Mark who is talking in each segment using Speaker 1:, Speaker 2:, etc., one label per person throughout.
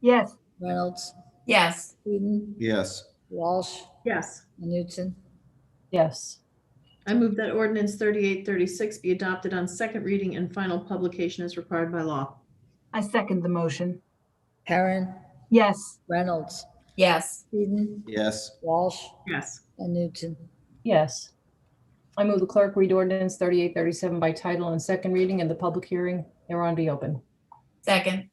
Speaker 1: Yes.
Speaker 2: Reynolds,
Speaker 3: Yes.
Speaker 2: Whedon,
Speaker 4: Yes.
Speaker 2: Walsh,
Speaker 5: Yes.
Speaker 2: Newton.
Speaker 6: yes,
Speaker 5: I move that ordinance 3836 be adopted on second reading and final publication as required by law.
Speaker 1: I second the motion.
Speaker 2: Perrin,
Speaker 1: Yes.
Speaker 2: Reynolds,
Speaker 3: Yes.
Speaker 2: Whedon,
Speaker 4: Yes.
Speaker 2: Walsh,
Speaker 5: Yes.
Speaker 2: and Newton.
Speaker 6: yes. I move the clerk read ordinance 3837 by title and second reading and the public hearing thereon be open.
Speaker 3: Second.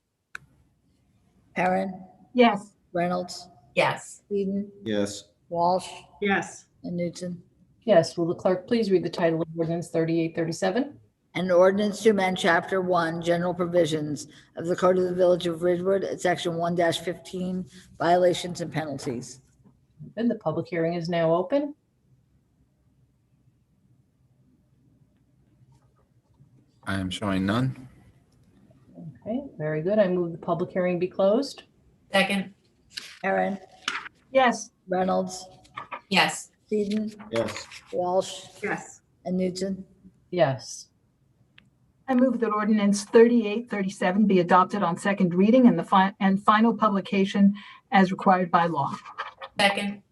Speaker 2: Perrin,
Speaker 1: Yes.
Speaker 2: Reynolds,
Speaker 3: Yes.
Speaker 2: Whedon,
Speaker 4: Yes.
Speaker 2: Walsh,
Speaker 5: Yes.
Speaker 2: and Newton.
Speaker 6: Yes, will the clerk please read the title of ordinance 3837?
Speaker 2: An ordinance to amend Chapter 1, General Provisions of the Code of the Village of Ridgewood at Section 1-15, Violations and Penalties.
Speaker 6: And the public hearing is now open.
Speaker 7: I am showing none.
Speaker 6: Okay, very good. I move the public hearing be closed.
Speaker 3: Second.
Speaker 2: Perrin,
Speaker 1: Yes.
Speaker 2: Reynolds,
Speaker 3: Yes.
Speaker 2: Whedon,
Speaker 4: Yes.
Speaker 2: Walsh,
Speaker 5: Yes.
Speaker 2: and Newton.
Speaker 6: Yes,
Speaker 1: I move that ordinance 3837 be adopted on second reading and the fi- and final publication as required by law.
Speaker 3: Second.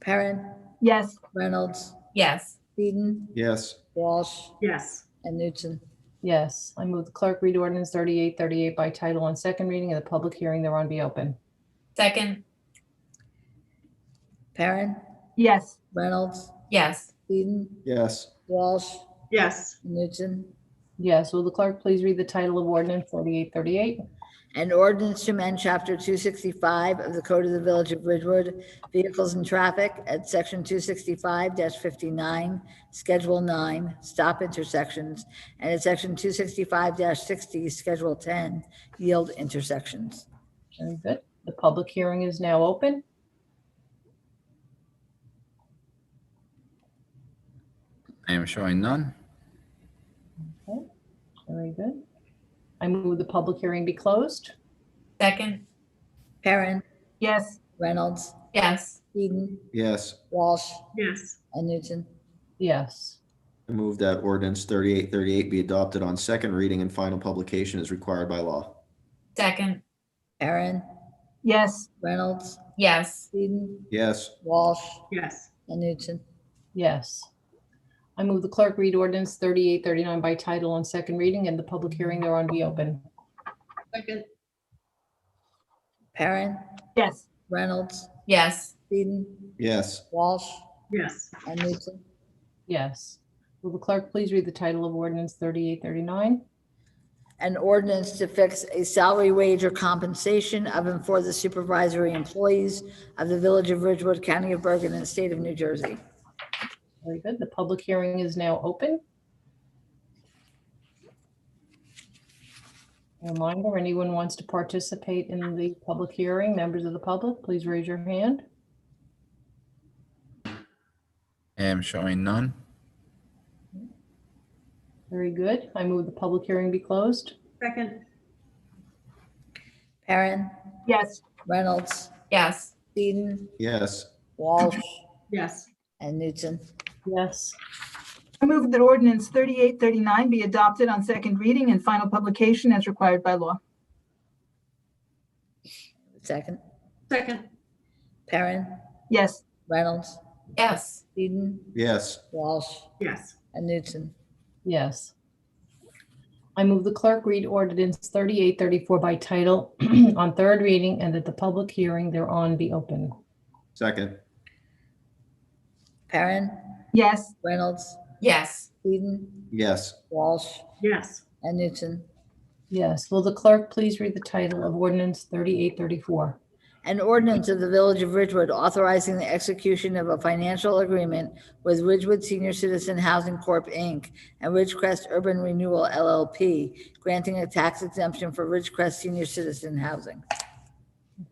Speaker 2: Perrin,
Speaker 1: Yes.
Speaker 2: Reynolds,
Speaker 3: Yes.
Speaker 2: Whedon,
Speaker 4: Yes.
Speaker 2: Walsh,
Speaker 5: Yes.
Speaker 2: and Newton.
Speaker 6: yes. I move the clerk read ordinance 3838 by title and second reading and the public hearing thereon be open.
Speaker 3: Second.
Speaker 2: Perrin,
Speaker 1: Yes.
Speaker 2: Reynolds,
Speaker 3: Yes.
Speaker 2: Whedon,
Speaker 4: Yes.
Speaker 2: Walsh,
Speaker 5: Yes.
Speaker 2: and Newton.
Speaker 6: Yes, will the clerk please read the title of ordinance 3838?
Speaker 2: An ordinance to amend Chapter 265 of the Code of the Village of Ridgewood, Vehicles and Traffic at Section 265-59, Schedule 9, Stop Intersections, and at Section 265-60, Schedule 10, Yield Intersections.
Speaker 6: Very good. The public hearing is now open.
Speaker 7: I am showing none.
Speaker 6: Very good. I move the public hearing be closed.
Speaker 3: Second.
Speaker 2: Perrin,
Speaker 1: Yes.
Speaker 2: Reynolds,
Speaker 3: Yes.
Speaker 2: Eden,
Speaker 4: Yes.
Speaker 2: Walsh,
Speaker 5: Yes.
Speaker 2: and Newton.
Speaker 6: Yes,
Speaker 4: I move that ordinance thirty-eight thirty-eight be adopted on second reading and final publication as required by law.
Speaker 3: Second.
Speaker 2: Perrin,
Speaker 1: Yes.
Speaker 2: Reynolds,
Speaker 3: Yes.
Speaker 2: Eden,
Speaker 4: Yes.
Speaker 2: Walsh,
Speaker 5: Yes.
Speaker 2: and Newton.
Speaker 6: yes. I move the clerk read ordinance 3839 by title on second reading and the public hearing thereon be open.
Speaker 5: Second.
Speaker 2: Perrin,
Speaker 1: Yes.
Speaker 2: Reynolds,
Speaker 3: Yes.
Speaker 2: Eden,
Speaker 4: Yes.
Speaker 2: Walsh,
Speaker 5: Yes.
Speaker 2: and Newton.
Speaker 6: Yes. Will the clerk please read the title of ordinance 3839?
Speaker 2: An ordinance to fix a salary wage or compensation of and for the supervisory employees of the Village of Ridgewood, County of Bergen, and State of New Jersey.
Speaker 6: Very good. The public hearing is now open. Reminder, anyone wants to participate in the public hearing, members of the public, please raise your hand.
Speaker 7: I am showing none.
Speaker 6: Very good. I move the public hearing be closed.
Speaker 5: Second.
Speaker 2: Perrin,
Speaker 1: Yes.
Speaker 2: Reynolds,
Speaker 3: Yes.
Speaker 2: Eden,
Speaker 4: Yes.
Speaker 2: Walsh,
Speaker 5: Yes.
Speaker 2: and Newton.
Speaker 6: Yes,
Speaker 1: I move that ordinance 3839 be adopted on second reading and final publication as required by law.
Speaker 2: Second.
Speaker 5: Second.
Speaker 2: Perrin,
Speaker 1: Yes.
Speaker 2: Reynolds,
Speaker 3: Yes.
Speaker 2: Eden,
Speaker 4: Yes.
Speaker 2: Walsh,
Speaker 5: Yes.
Speaker 2: and Newton.
Speaker 6: yes. I move the clerk read ordinance 3834 by title on third reading and that the public hearing thereon be open.
Speaker 4: Second.
Speaker 2: Perrin,
Speaker 1: Yes.
Speaker 2: Reynolds,
Speaker 3: Yes.
Speaker 2: Eden,
Speaker 4: Yes.
Speaker 2: Walsh,
Speaker 5: Yes.
Speaker 2: and Newton.
Speaker 6: Yes, will the clerk please read the title of ordinance 3834?
Speaker 2: An ordinance of the Village of Ridgewood authorizing the execution of a financial agreement with Ridgewood Senior Citizen Housing Corp., Inc. and Ridgecrest Urban Renewal LLP, granting a tax exemption for Ridgecrest Senior Citizen Housing.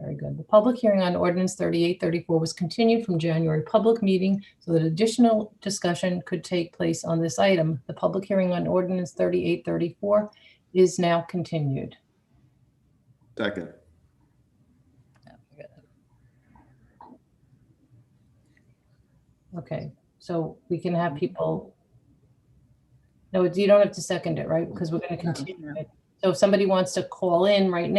Speaker 6: Very good. The public hearing on ordinance 3834 was continued from January public meeting so that additional discussion could take place on this item. The public hearing on ordinance 3834 is now continued.
Speaker 4: Second.
Speaker 6: Okay, so we can have people. No, you don't have to second it, right? Because we're going to continue it. So if somebody wants to call in right now.